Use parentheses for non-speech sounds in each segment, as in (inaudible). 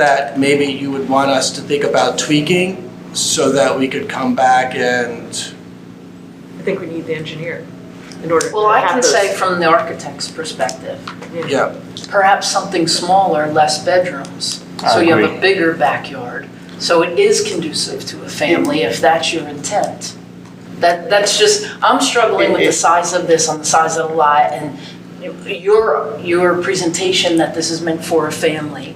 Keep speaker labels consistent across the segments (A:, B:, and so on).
A: that maybe you would want us to think about tweaking so that we could come back and,
B: I think we need the engineer in order to
C: Well, I
B: have
C: can
B: those.
C: say from the architect's perspective,
A: yeah,
C: perhaps something smaller, less bedrooms. So you have a bigger backyard. So it is conducive to a family if that's your intent. That, that's just, I'm struggling with the size of this on the size of the lot and your, your presentation that this is meant for a family.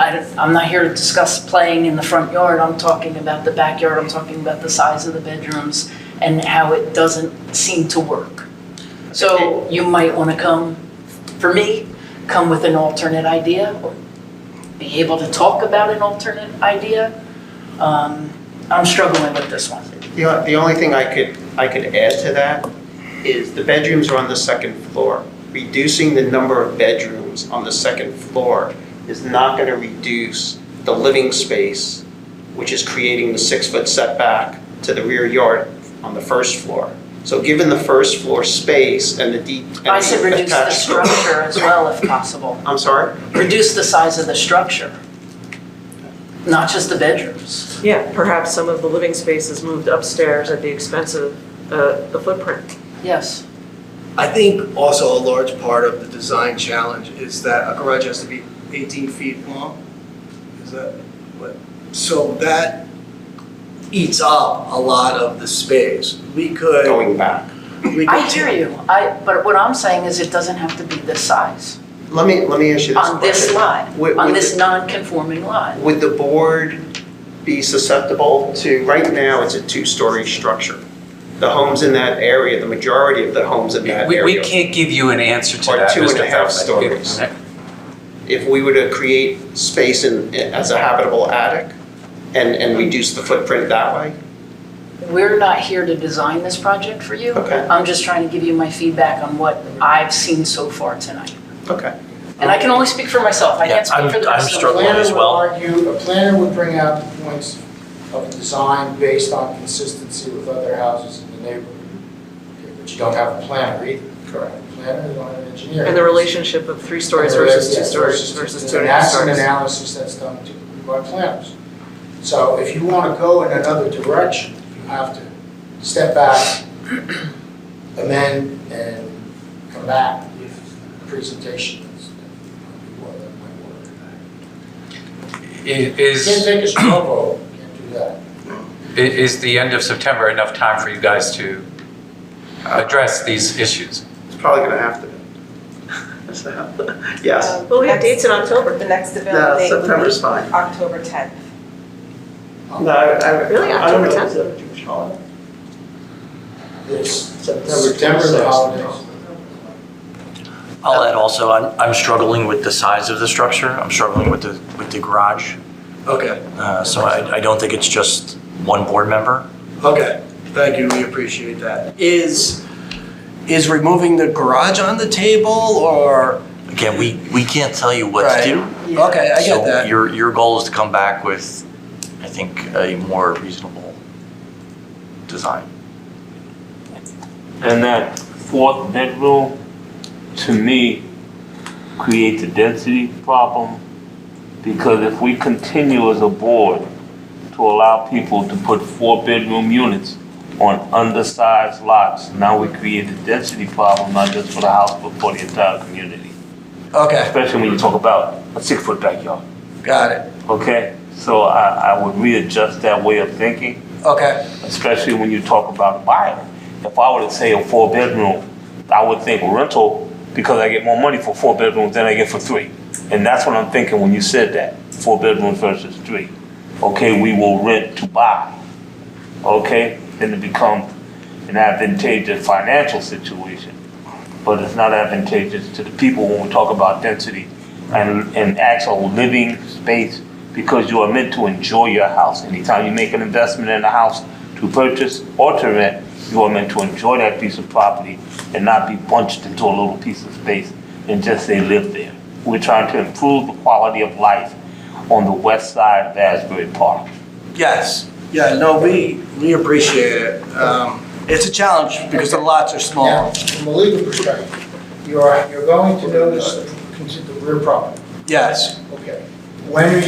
C: I, am not here to discuss playing in the front yard. I'm talking about the backyard. I'm talking about the size of the bedrooms and how it doesn't seem to work. So you might want to come, for me, come with an alternate idea, or be able to talk about an alternate idea. Um, I'm struggling with this one.
D: The, o- the only thing I could, I could add to that is the bedrooms are on the second floor. Reducing the number of bedrooms on the second floor is not gonna reduce the living space, which is creating the six-foot setback to the rear yard on the first floor. So given the first floor space and the deep. and
C: I said reduce the
D: attached-
C: structure as well if possible.
D: I'm sorry?
C: Reduce the size of the structure, not just the bedrooms.
B: Yeah, perhaps some of the living space is moved upstairs at the expense of uh, the footprint.
C: Yes.
A: I think also a large part of the design challenge is that a garage has to be 18 feet long. Is that what? So that eats up a lot of the space. We could.
D: Going back.
A: we could
C: I hear you, I, but what I'm saying is it doesn't have to be this size
D: Let me, let me ask you this
C: on this
D: question.
C: lot,
D: Would-
C: on
D: would
C: this
D: the-
C: non-conforming lot.
D: Would the board be susceptible to, right now, it's a two-story structure. The homes in that area, the majority of the homes in that
E: We, we
D: area,
E: can't give you an answer to
D: Or
E: that,
D: two and
E: Mr.
D: a half
E: Feldman.
D: stories. if we were to create space in, as a habitable attic and, and reduce the footprint that way?
C: We're not here to design this project for you.
D: Okay.
C: I'm just trying to give you my feedback on what I've seen so far tonight.
D: Okay.
C: And I can only speak for myself, I
E: Yeah,
C: can't speak
E: I'm-
C: for the
E: I'm
C: rest of the
E: struggling.
C: board.
F: planner
E: as
F: would
E: well.
F: argue, a planner would bring out the points of design based on consistency with other houses in the neighborhood. Okay, But you don't have a planner either. Correct. Planner, you don't have an engineer.
B: And the relationship of three stories versus two stories versus two and a half
F: That's an
B: stories.
F: analysis that's done to- by planners. So if you want to go in another direction, you have to step back, amend, and come back with presentations.
E: I-
F: Can't
E: Is,
F: take a straw vote, can't do that.
E: i- is the end of September enough time for you guys to address these issues?
D: It's probably gonna have to be. That's the hab- (laughs) Yes.
B: Well, we have dates in October.
G: The next
D: No,
G: available date would
D: September's
G: be
D: fine.
G: October 10th.
D: No, I, I.
B: Really?
D: I don't
B: October
D: know.
B: 10th?
D: Is it a Jewish holiday?
F: It's
D: September
F: September, the
D: 26th.
F: holidays.
H: I'll add also, I'm, I'm struggling with the size of the structure. I'm struggling with the, with the garage.
A: Okay,
H: Uh, so I, I don't think it's just one board member.
A: okay. Thank you, we appreciate that. Is, is removing the garage on the table or?
H: Again, we, we can't tell you what to
A: Right.
H: do.
A: Okay, I get
H: So
A: that.
H: your, your goal is to come back with, I think, a more reasonable design.
I: And that fourth bedroom, to me, creates a density problem because if we continue as a board to allow people to put four-bedroom units on undersized lots, now we create a density problem, not just for the house, but for the entire community.
A: Okay,
I: Especially when you talk about a six-foot backyard,
A: got it.
I: okay? So I, I would readjust that way of thinking
A: Okay,
I: especially when you talk about buying. If I were to say a four bedroom, I would think rental because I get more money for four bedrooms than I get for three. And that's what I'm thinking when you said that, four bedrooms versus three. Okay, we will rent to buy. Okay, then it becomes an advantageous financial situation. But it's not advantageous to the people when we talk about density and, and actual living space because you are meant to enjoy your house. Anytime you make an investment in a house to purchase or to rent, you are meant to enjoy that piece of property and not be bunched into a little piece of space and just say live there. We're trying to improve the quality of life on the west side of Asbury Park.
A: yes. Yeah, no, we, we appreciate it. Um, It's a challenge because the lots are
F: Now,
A: small.
F: from a legal perspective, you're, you're going to notice the, the rear property,
A: Yes.
F: okay? When are